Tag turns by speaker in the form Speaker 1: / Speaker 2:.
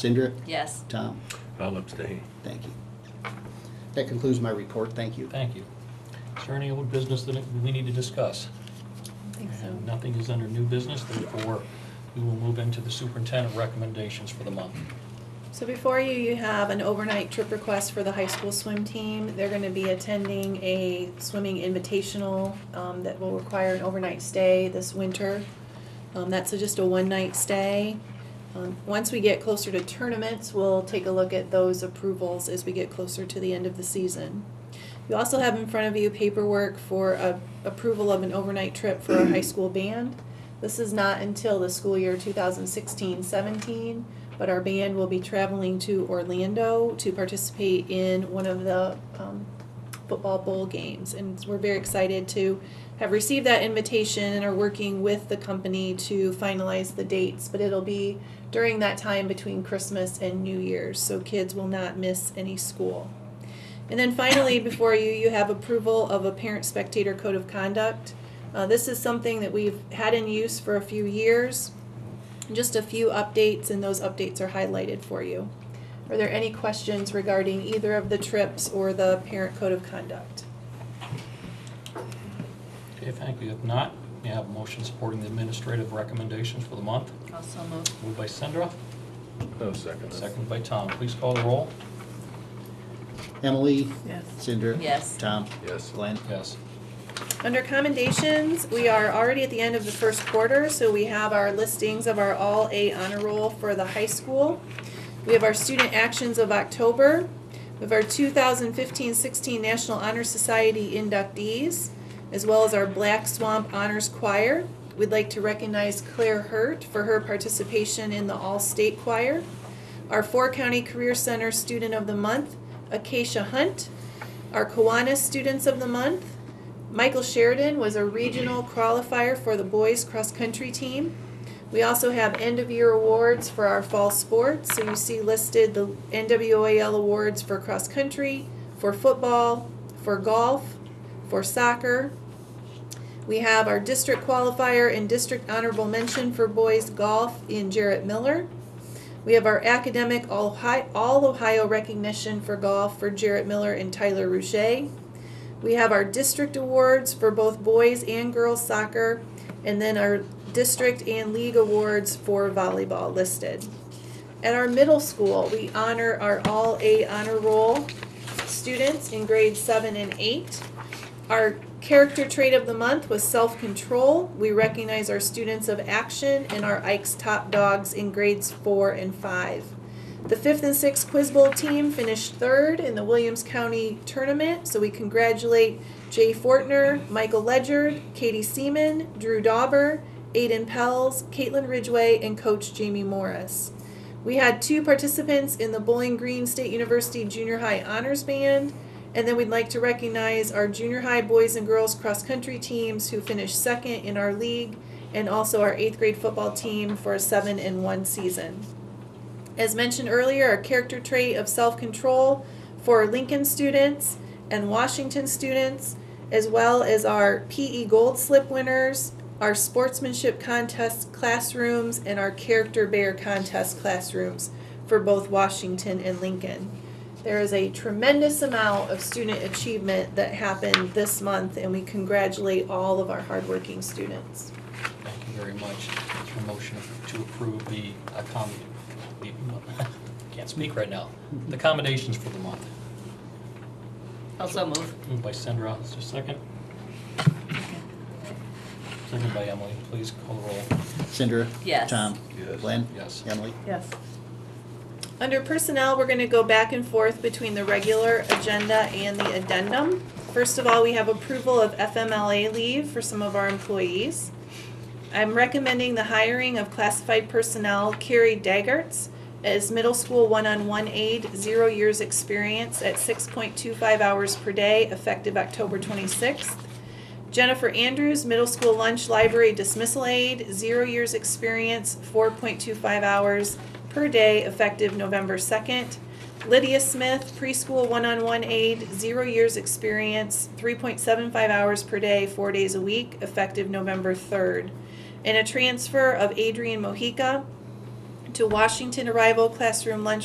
Speaker 1: Cindra,
Speaker 2: Yes.
Speaker 1: Tom,
Speaker 3: I'll abstain.
Speaker 1: thank you. That concludes my report. Thank you.
Speaker 4: Thank you. Is there any old business that we need to discuss?
Speaker 2: I think so.
Speaker 4: And nothing is under new business, therefore, we will move into the superintendent recommendations for the month.
Speaker 5: So before you, you have an overnight trip request for the high school swim team. They're gonna be attending a swimming invitational, um, that will require an overnight stay this winter. Um, that's a- just a one-night stay. Um, once we get closer to tournaments, we'll take a look at those approvals as we get closer to the end of the season. You also have in front of you paperwork for a approval of an overnight trip for our high school band. This is not until the school year 2016-17 but our band will be traveling to Orlando to participate in one of the um, football bowl games. And we're very excited to have received that invitation and are working with the company to finalize the dates. But it'll be during that time between Christmas and New Year's, so kids will not miss any school. And then finally, before you, you have approval of a parent spectator code of conduct. Uh, this is something that we've had in use for a few years just a few updates, and those updates are highlighted for you. Are there any questions regarding either of the trips or the parent code of conduct?
Speaker 4: Okay, thank you. If not, we have a motion supporting the administrative recommendations for the month.
Speaker 2: Also move.
Speaker 4: Moved by Sandra,
Speaker 3: No second.
Speaker 4: seconded by Tom. Please call the roll.
Speaker 1: Emily,
Speaker 5: Yes.
Speaker 1: Cindra.
Speaker 2: Yes.
Speaker 1: Tom,
Speaker 3: Yes.
Speaker 1: Glenn.
Speaker 4: Yes.
Speaker 5: Under commendations, we are already at the end of the first quarter, so we have our listings of our all A honor roll for the high school. We have our student actions of October. We have our 2015-16 National Honor Society inductees, as well as our Black Swamp Honors Choir. We'd like to recognize Claire Hurt for her participation in the All-State Choir. Our Four County Career Center Student of the Month, Acacia Hunt. Our Kiwanis Students of the Month, Michael Sheridan was a regional qualifier for the boys cross country team. We also have end of year awards for our fall sports. So you see listed the NWAL awards for cross country, for football, for golf, for soccer. We have our district qualifier and district honorable mention for boys golf in Jarrett Miller. We have our academic All Ohio, All Ohio recognition for golf for Jarrett Miller and Tyler Rouchet. We have our district awards for both boys and girls soccer, and then our district and league awards for volleyball listed. At our middle school, we honor our All A Honor Roll students in grades seven and eight. Our character trait of the month was self-control. We recognize our students of action and our Ike's Top Dogs in grades four and five. The fifth and sixth Quiz Bowl team finished third in the Williams County tournament, so we congratulate Jay Fortner, Michael Ledger, Katie Seaman, Drew Dauber, Aiden Pels, Caitlin Ridgway, and Coach Jamie Morris. We had two participants in the Bowling Green State University Junior High Honors Band, and then we'd like to recognize our junior high boys and girls cross country teams who finished second in our league, and also our eighth grade football team for a seven and one season. As mentioned earlier, a character trait of self control for Lincoln students and Washington students, as well as our PE Gold Slip winners, our sportsmanship contest classrooms, and our character bear contest classrooms for both Washington and Lincoln. There is a tremendous amount of student achievement that happened this month, and we congratulate all of our hardworking students.
Speaker 4: Thank you very much. Is there a motion to approve the accommod, the- can't speak right now, the accommodations for the month?
Speaker 2: Also move.
Speaker 4: Moved by Sandra, is there a second? Second by Emily, please call the roll.
Speaker 1: Cindra.
Speaker 2: Yes.
Speaker 1: Tom.
Speaker 3: Yes.
Speaker 1: Glenn.
Speaker 4: Yes.
Speaker 1: Emily.
Speaker 2: Yes.
Speaker 5: Under personnel, we're gonna go back and forth between the regular agenda and the addendum. First of all, we have approval of FMLA leave for some of our employees. I'm recommending the hiring of classified personnel Carrie Daggerts as middle school one-on-one aide, zero years experience at six point two five hours per day, effective October twenty-sixth. Jennifer Andrews, middle school lunch library dismissal aide, zero years experience, four point two five hours per day, effective November second. Lydia Smith, preschool one-on-one aide, zero years experience, three point seven five hours per day, four days a week, effective November third. And a transfer of Adrian Mojica, to Washington arrival classroom lunch